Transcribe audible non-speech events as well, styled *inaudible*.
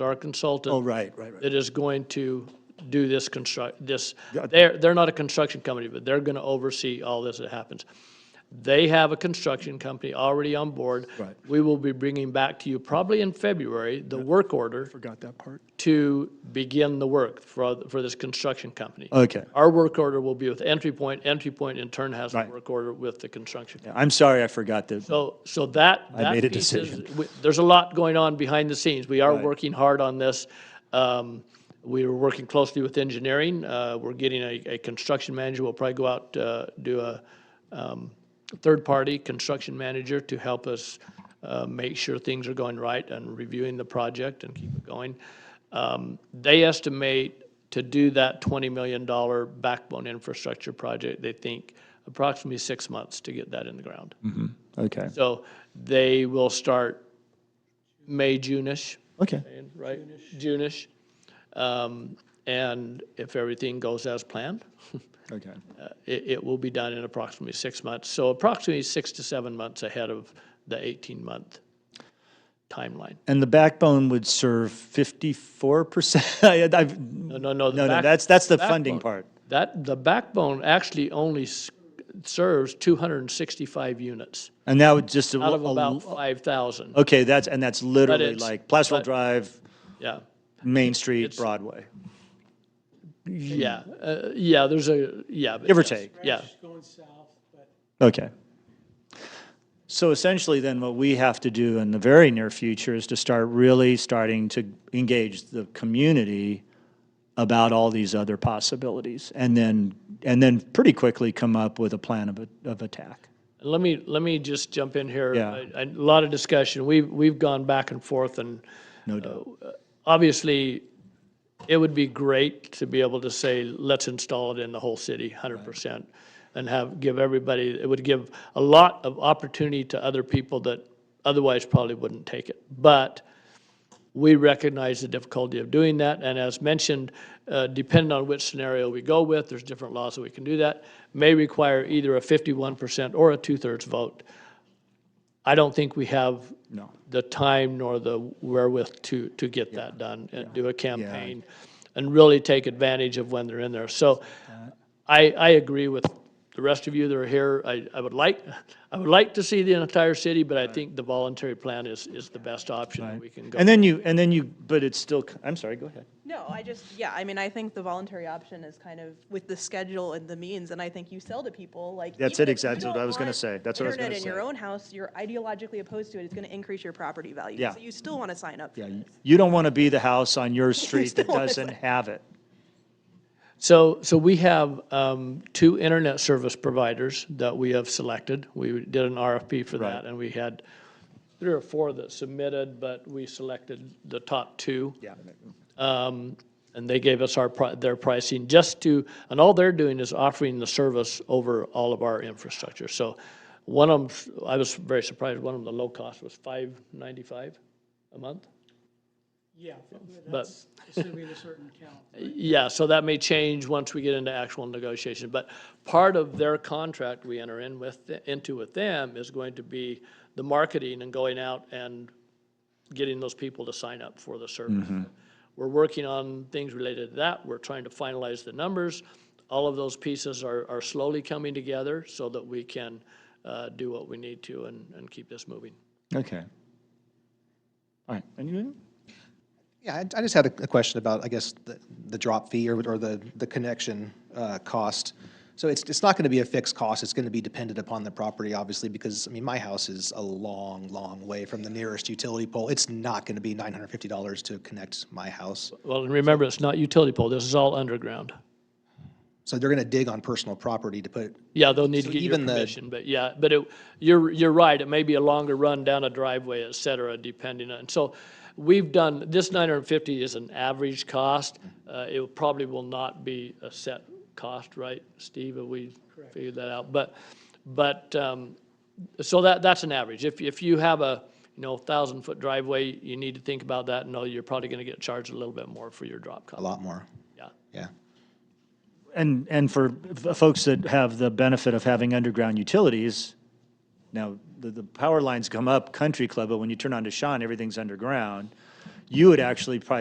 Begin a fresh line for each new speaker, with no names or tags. our
Oh,
consultant
right, right, right.
that is going to do this construct, this,
Got-
they're, they're not a construction company, but they're going to oversee all this that happens. They have a construction company already on board.
Right.
We will be bringing back to you probably in February, the work order
Forgot that part.
to begin the work for, for this construction company.
Okay.
Our work order will be with Entry Point. Entry Point in turn has a
Right.
work order with the construction. company.
I'm sorry, I forgot that.
So, so that,
I
that
made a
piece is-
decision.
we- there's a lot going on behind the scenes. We are
Right.
working hard on this. Um, We are working closely with engineering. Uh, We're getting a, a construction manager. We'll probably go out, uh, do a um, third-party construction manager to help us uh, make sure things are going right and reviewing the project and keep it going. Um, They estimate to do that $20 million backbone infrastructure project, they think approximately six months to get that in the ground.
Okay,
So they will start May, June-ish,
okay.
right? June-ish. Um, And if everything goes as planned,
Okay.
uh, it, it will be done in approximately six months. So approximately six to seven months ahead of the 18-month timeline.
And the backbone would serve fifty-four percent? *laughs* I've,
No, no, no. the
no, no,
back-
that's, that's the funding
backbone.
part.
That, the backbone actually only s- serves 265 units
And that would just. a-
out of
a-
about 5,000.
Okay, that's, and that's literally
it's-
like Placerville
but-
Drive,
Yeah.
Main Street,
it's-
Broadway.
Yeah, uh, yeah, there's a, yeah. but
Give or
yes,
take.
Yeah,
going south, but
Okay. So essentially, then, what we have to do in the very near future is to start really starting to engage the community about all these other possibilities, and then, and then pretty quickly come up with a plan of, a- of attack.
And let me, let me just jump in here.
Yeah.
A- A lot of discussion, we've, we've gone back and forth, and
No doubt.
obviously, it would be great to be able to say, let's install it in the whole city, 100%, and have, give everybody, it would give a lot of opportunity to other people that otherwise probably wouldn't take it. But we recognize the difficulty of doing that, and as mentioned, uh, depending on which scenario we go with, there's different laws that we can do that, may require either a 51% or a two-thirds vote. I don't think we have
No.
the time nor the wherewith to, to get that done and do a campaign and really take advantage of when they're in there. So I, I agree with the rest of you that are here. I, I would like, I would like to see the entire city, but I think the voluntary plan is, is the best option that we can go.
And then you, and then you, but it's still, I'm sorry, go ahead.
No, I just, yeah, I mean, I think the voluntary option is kind of with the schedule and the means, and I think you sell to people, like.
That's it,
even if you
exactly what
don't
I was gonna
want
say. That's what I was
Internet
gonna
in your
say.
own house, you're ideologically opposed to it, it's gonna increase your property value.
Yeah.
So you still wanna sign up for
Yeah,
this.
you- you don't want to be the house on your street that
still wanna
doesn't
say-
have it.
So, so we have um, two internet service providers that we have selected. We did an RFP for
Right.
that, and we had three or four that submitted, but we selected the top two.
Yeah.
Um, And they gave us our, pri- their pricing just to, and all they're doing is offering the service over all of our infrastructure. So one of them, I was very surprised, one of them, the low cost was five ninety-five a month.
yeah, that's assuming a certain count.
Yeah, so that may change once we get into actual negotiation, but part of their contract we enter in with, into with them is going to be the marketing and going out and getting those people to sign up for the service. We're working on things related to that, we're trying to finalize the numbers. All of those pieces are, are slowly coming together so that we can, uh, do what we need to and, and keep this moving.
Okay. All right, anything?
Yeah, I I just had a a question about, I guess, the- the drop fee or or the the connection uh, cost. So it's it's not going to be a fixed cost, it's going to be dependent upon the property, obviously, because, I mean, my house is a long, long way from the nearest utility pole. It's not going to be $950 to connect my house.
Well, and remember, it's not utility pole, this is all underground.
So they're going to dig on personal property to put,
Yeah, they'll need to
So
get your
even the-
permission, but yeah, but it, you're, you're right, it may be a longer run down a driveway, et cetera, depending on, so we've done, this nine hundred and fifty is an average cost, uh, it probably will not be a set cost, right, Steve, have we figured that out? But, but, um, so that, that's an average, if, if you have a, you know, thousand-foot driveway, you need to think about that, and know you're probably gonna get charged a little bit more for your drop
a
cost,
lot more,
yeah.
yeah.
And, and for f- folks that have the benefit of having underground utilities, now, the, the power lines come up Country Club, but when you turn on to Shawn, everything's underground. you would actually probably